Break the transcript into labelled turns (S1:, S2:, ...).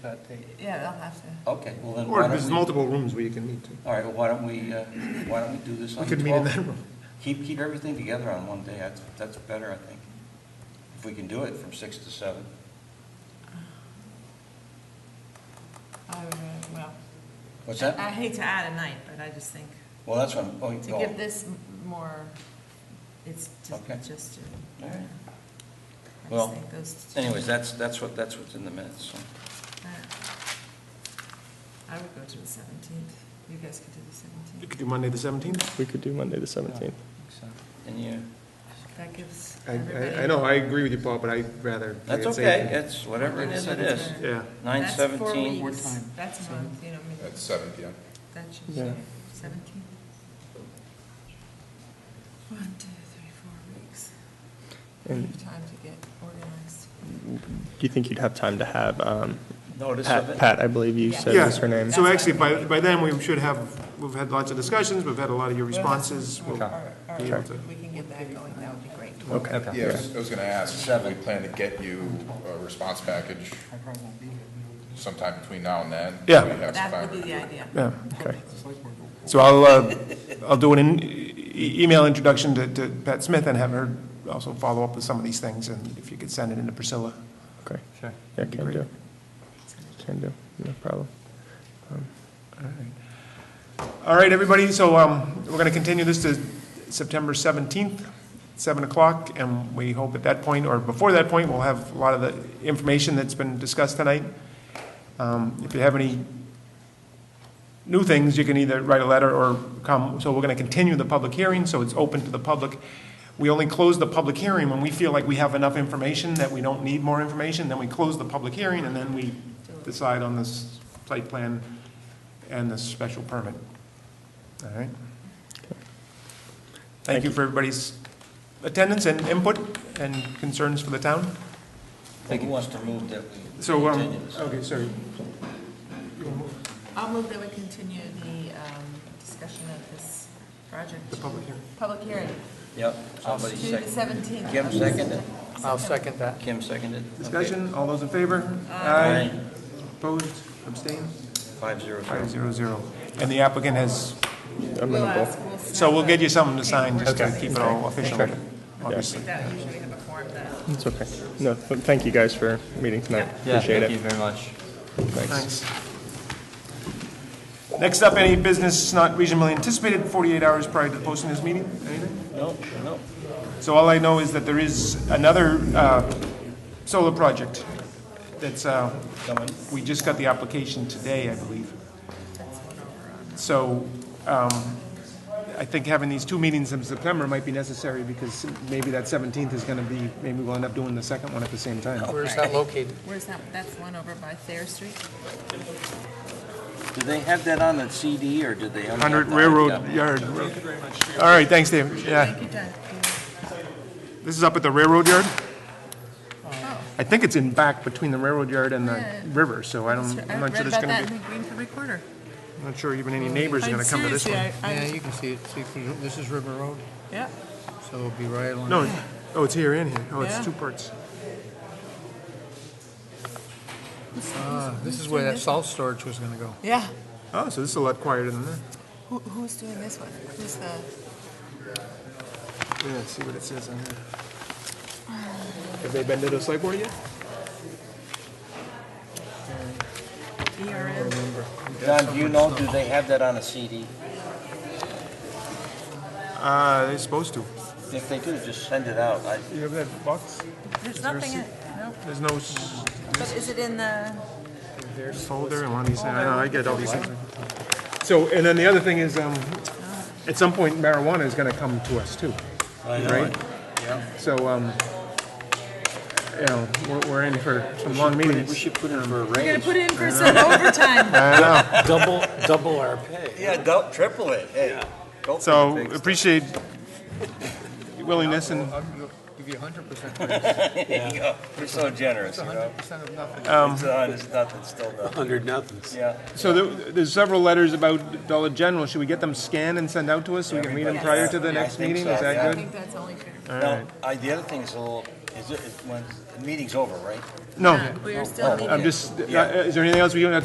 S1: that date.
S2: Yeah, I'll have to.
S3: Okay, well then
S4: Or
S3: why
S4: if
S3: don't
S4: there's
S3: we,
S4: multiple rooms where you can meet too.
S3: all right, well, why don't we, uh, why don't we do this
S4: We
S3: on the
S4: could meet in
S3: 12th?
S4: that room.
S3: Keep, keep everything together on one day, that's, that's better, I think. If we can do it from 6 to 7.
S2: I would, uh, well.
S3: What's
S2: I
S3: that?
S2: hate to add a night, but I just think
S3: Well, that's what I'm going
S2: Uh, to
S3: to...
S2: give this m- more, it's just,
S3: Okay.
S2: just to. I
S3: All right.
S2: just
S3: Well,
S2: think those two-
S3: Anyways, that's, that's what, that's what's in the minutes, so.
S2: All right. I would go to the seventeenth. You guys could do the
S4: You
S2: seventeenth.
S4: could do Monday the 17th.
S5: We could do Monday, the 17th.
S3: And you,
S2: That gives
S4: I-
S2: everybody.
S4: I, I know, I agree with you, Paul, but I'd rather.
S3: that's
S4: it's
S3: okay,
S4: eight.
S3: it's whatever it is, it is.
S4: Yeah,
S3: Nine
S2: That's four
S3: seventeen.
S1: What
S2: weeks.
S1: time?
S2: That's a month, you know, maybe,
S6: At seven P M.
S2: that should be
S5: Yeah.
S2: seventeen. One, two, three, four weeks.
S5: And
S2: Time to get organized.
S5: do you think you'd have time to have, um,
S3: Notice of
S5: Pat,
S3: it?
S5: Pat, I believe you
S2: Yeah.
S5: said was her
S4: yeah,
S5: name?
S4: so actually, by, by then, we should have, we've had lots of discussions, we've had a lot of your responses. We'll-
S2: All right, all
S4: be able
S2: right,
S4: to-
S2: we can get that going, that would be great.
S5: Okay.
S6: Yeah, I was- I was gonna ask, do we plan to get you a response package
S1: I probably won't be here.
S6: sometime between now and then?
S4: Yeah.
S6: We have some
S2: That
S6: time.
S2: would be the idea.
S4: Yeah, okay.
S1: The select board will-
S4: So I'll, uh, I'll do an in- e- email introduction to, to Pat Smith and have her also follow up with some of these things, and if you could send it into Priscilla.
S5: Okay,
S1: Sure.
S5: yeah,
S4: be
S5: can
S4: great.
S5: do. Can do, no problem.
S4: All right, everybody, so um, we're going to continue this to September 17th, 7 o'clock, and we hope at that point, or before that point, we'll have a lot of the information that's been discussed tonight. Um, If you have any new things, you can either write a letter or come, so we're going to continue the public hearing, so it's open to the public. We only close the public hearing when we feel like we have enough information, that we don't need more information, then we close the public hearing, and then we decide on this site plan and the special permit. All right. Thank you for everybody's attendance and input and concerns for the town.
S3: Who wants to move that we
S4: So, um,
S3: continue this?
S4: okay, sorry.
S2: I'll move that we continue the um, discussion of this project.
S4: The public hearing.
S2: Public hearing
S3: Yep,
S2: to
S3: somebody
S2: the
S3: seconded.
S2: 17th.
S3: Kim seconded?
S1: I'll second that.
S3: Kim seconded? Okay.
S4: Discussion, all those in favor?
S3: Aye.
S4: Opposed, abstained,
S3: Five zero zero.
S4: five zero zero. And the applicant has,
S2: We'll ask, we'll snap
S4: so we'll get you
S2: a-
S4: something to sign just to
S5: Okay.
S4: keep it all official,
S5: Okay.
S4: obviously.
S2: That usually have a form that.
S5: It's okay. No, th- thank you guys for meeting tonight. Appreciate it.
S3: very much.
S4: Thanks. Next up, any business not reasonably anticipated 48 hours prior to posting this meeting? Anything?
S3: No, no.
S4: So all I know is that there is another uh, solar project that's, uh, we just got the application today, I believe. So um, I think having these two meetings in September might be necessary because maybe that 17th is going to be, maybe we'll end up doing the second one at the same time.
S1: Where's that located?
S2: Where's that, that's one over by Thayer Street?
S3: Do they have that on the CD, or do they? only have
S4: 100
S3: the hard
S4: Railroad
S3: copy?
S4: Yard. All right, thanks, Dave. Yeah.
S2: Thank you, Doug.
S4: This is up at the railroad yard?
S2: Oh.
S4: I think it's in back between the railroad yard and the
S2: Yeah.
S4: river, so I don't,
S2: I
S4: Um, I'm not sure
S2: read
S4: there's
S2: about
S4: gonna
S2: that in
S4: be,
S2: the Greenfield Recorder.
S4: I'm not sure even any neighbors are
S2: I-
S4: gonna come to this
S2: seriously,
S4: one.
S2: I- I-
S1: Yeah, you can see it, see, this is River Road,
S2: Yeah,
S1: so it'll be right along.
S4: No, it- oh, it's here and here. Oh, it's
S2: Yeah.
S4: two parts.
S1: Ah, This is where that salt storage was gonna go.
S2: yeah.
S4: Oh, so this is a lot quieter than that.
S2: Who, who's doing this one? Who's the,
S4: Yeah, let's see what it says on here. Have they been to the select board yet?
S2: ERM?
S3: Don, do you know, do they have that on a CD?
S4: Uh, they're supposed to.
S3: If they do, just send it out. I-
S4: You have that box?
S2: There's nothing, in- no,
S4: There's no s-
S2: but is it in the?
S4: folder and one of these, I know, I get all these things. So, and then the other thing is, um, at some point marijuana is gonna come to us too. Right? So, um, you know, we're, we're in for some long
S3: We
S4: meetings.
S3: should put in for a
S2: Gonna
S3: raise.
S2: put in for some overtime.
S4: I know.
S7: double, double our pay.
S3: Yeah, go, triple it, hey. Go for
S4: So
S3: the big stuff.
S4: appreciate your willingness and,
S1: Give you hundred percent,
S3: There you go. We're so generous, you know?
S1: hundred percent of nothing.
S4: Um,
S3: It's on, it's nothing, still nothing.
S7: Hundred nothings.
S3: Yeah.
S4: so there, there's several letters about Dollar General. Should we get them scanned and send out to us so we can read them prior to the
S3: Yes.
S4: next
S3: I think
S4: meeting?
S3: so,
S4: Is
S3: yeah.
S4: that
S2: I
S4: good?
S2: think that's only fair.
S4: All
S3: Now,
S4: right.
S3: I, the other thing is a little
S8: Is it, is, when, the meeting's over, right?
S4: No,
S3: We're still
S8: Oh,
S3: meeting.
S4: I'm just, uh, is there anything else we don't have to